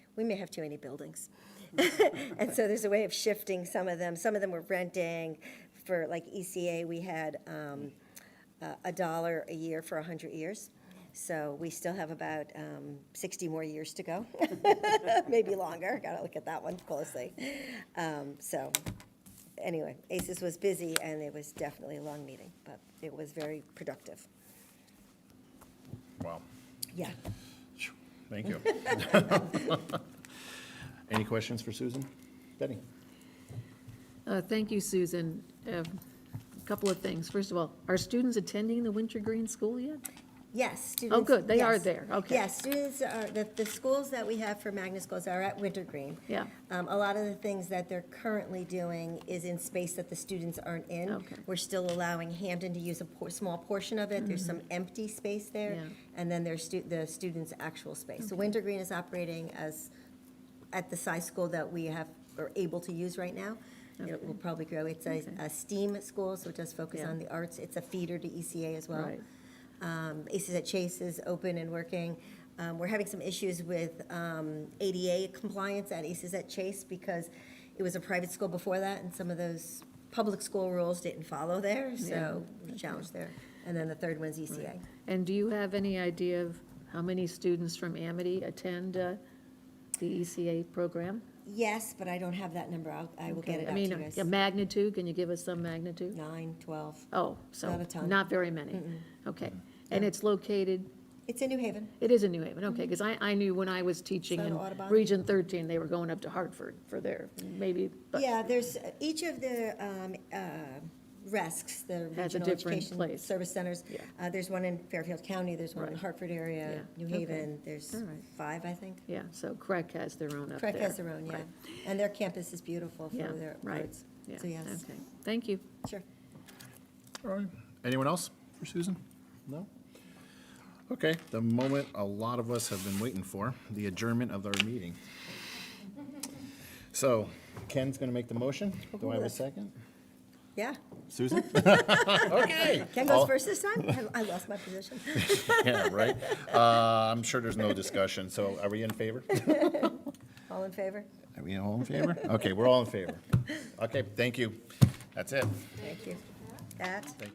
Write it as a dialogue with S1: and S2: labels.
S1: we may have too many buildings. And so there's a way of shifting some of them. Some of them were renting. For like ECA, we had um, a- a dollar a year for 100 years. So we still have about um, 60 more years to go, maybe longer. Got to look at that one closely. Um, So anyway, ACES was busy, and it was definitely a long meeting, but it was very productive.
S2: Wow.
S1: Yeah.
S2: Thank you. Any questions for Susan? Betty?
S3: Uh, Thank you, Susan. Um, A Couple of things. First of all, are students attending the Wintergreen School yet?
S1: Yes, students.
S3: Oh, good, they are
S1: yes.
S3: there, okay.
S1: Yes, students are, the, the schools that we have for magnet schools are at Wintergreen.
S3: Yeah.
S1: Um, a lot of the things that they're currently doing is in space that the students aren't in.
S3: Okay.
S1: We're still allowing Hampton to use a por- small portion of it, there's some empty space there.
S3: Mm-hmm. Yeah.
S1: And then there's stu- the students' actual space. So Wintergreen is operating as, at the size school that we have, are able to use right now. It will probably grow, it's a a STEAM school, so it does focus
S3: Yeah.
S1: on the arts, it's a feeder to ECA as well.
S3: Right.
S1: Um, Aces at Chase is open and working. Um, We're having some issues with um, ADA compliance at Aces at Chase because it was a private school before that, and some of those public school rules didn't follow there, so we challenged there. And then the third one's E ECA.
S3: And do you have any idea of how many students from Amity attend uh, the ECA program?
S1: Yes, but I don't have that number. I'll- I will get
S3: Okay,
S1: it out to you
S3: I mean, uh,
S1: guys.
S3: a magnitude, can you give us some magnitude?
S1: Nine, 12.
S3: Oh, so,
S1: Not a ton.
S3: not very many. Okay. And it's located,
S1: It's in New Haven.
S3: it is in New Haven, okay, because I, I knew when I was teaching
S1: It's on
S3: in
S1: Mm-hmm. Audubon.
S3: Region 13, they were going up to Hartford for their, maybe, but
S1: Yeah, there's, each of the um, uh, RESCs, the
S3: Has a
S1: Regional
S3: different
S1: Education
S3: place.
S1: Service Centers.
S3: Yeah.
S1: uh, There's one in Fairfield County, there's one in
S3: Right.
S1: Hartford area,
S3: Yeah,
S1: New
S3: okay.
S1: Haven, there's
S3: All right.
S1: five, I think.
S3: yeah, so Craig has their own up there.
S1: Trek has their own, yeah.
S3: Right.
S1: And their campus is beautiful for
S3: Yeah,
S1: their
S3: right,
S1: birds.
S3: yeah,
S1: So yes,
S3: okay, thank you.
S1: sure.
S2: All right. Anyone else for Susan? No? Okay, the moment a lot of us have been waiting for, the adjournment of our meeting. So Ken's going to make the motion. Do I have a second?
S1: Yeah.
S2: Susan? Okay.
S1: Ken
S2: All-
S1: goes first this time? I- I lost my position.
S2: Yeah, right. Uh, I'm sure there's no discussion, so are we in favor?
S1: All in favor?
S2: Are we all in favor? Okay, we're all in favor. Okay, thank you. That's it.
S1: Thank you. That.